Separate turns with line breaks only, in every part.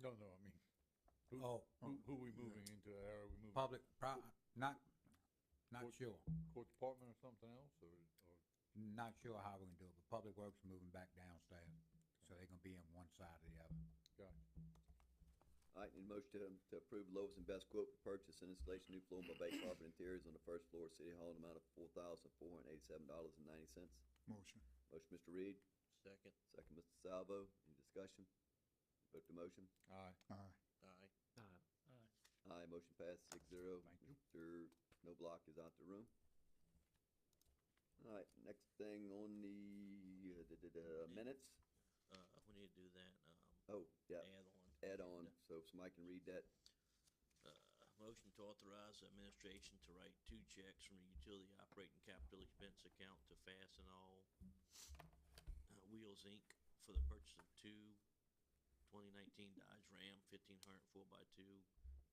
No, no, I mean, Who-
Oh,
who, who we moving into, that? are we moving
public, pro- not, not
What-
sure,
court department or something else, or, or,
not sure how we're gonna do it, but Public Works is moving back downstairs, so they're gonna be on one side or the other.
gotcha.
All right, need a motion to, to approve lowest and best quote for purchase and installation new floor by Bay carpet interiors on the first floor of City Hall in the amount of four thousand four hundred eighty-seven dollars and ninety cents.
Motion.
Motion, Mr. Reed,
Second,
second, Mr. Salvo, any discussion? Vote to motion.
Aye,
Aye.
aye.
Aye, motion passes six zero.
Thank you.
Mr. Noblock is out the room. All right, next thing on the, uh, da, da, da, minutes,
Uh, we need to do that, um,
oh, yeah,
add on.
add on, so if somebody can read that,
Uh, motion to authorize the administration to write two checks from the utility operating capital expense account to Fastenal uh, Wheels Inc. for the purchase of two 2019 Dodge Ram 1500 4x2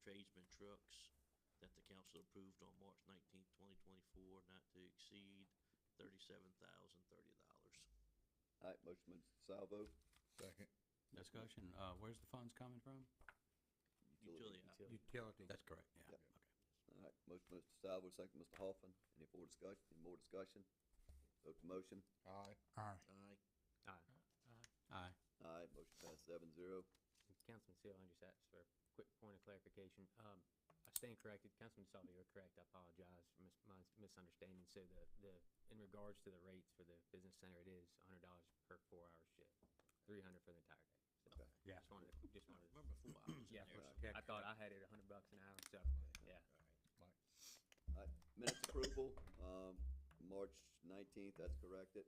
tradesman trucks that the council approved on March 19, 2024, not to exceed $37,030.
all right, motion, Mr. Salvo.
second,
Discussion, uh, where's the funds coming from?
Utility op-
Utility,
That's correct, yeah.
Yep. All right, motion by Mr. Salvo, second by Mr. Hoffman. Any more discussion, any more discussion? Vote to motion.
aye,
Aye.
aye.
Aye.
Aye, motion passed seven zero.
Councilman Seal, I just asked for a quick point of clarification. Um, I stand corrected. Councilman Salvo, you were correct. I apologize for mis- my misunderstanding. So the, the, in regards to the rates for the business center, it is hundred dollars per four-hour shift, three hundred for the entire day. So
Okay.
Yeah.
Just wanted, to just
I
wanted,
remember
to-
four hours in
yeah,
there.
right.
I thought I had it a hundred bucks an hour, so, yeah.
Minutes approval, um, March nineteenth, that's corrected,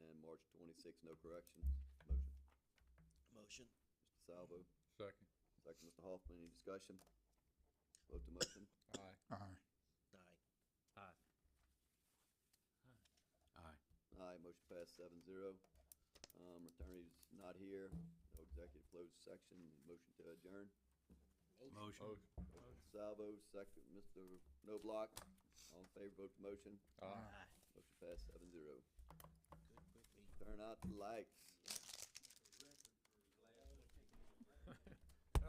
and March twenty-sixth, no corrections. Motion,
Motion,
Mr. Salvo,
second,
second Mr. Hoffman. Any discussion? Vote to motion.
aye,
Aye.
aye.
Aye.
Aye.
Aye, motion passed seven zero. Um, attorney's not here, no executive closed section, motion to adjourn.
Motion.
motion,
Salvo, second, Mr. No Block, all in favor, vote to motion.
aye.
Aye.
Motion passed seven zero.
Good, quick meeting.
Turn out the lights.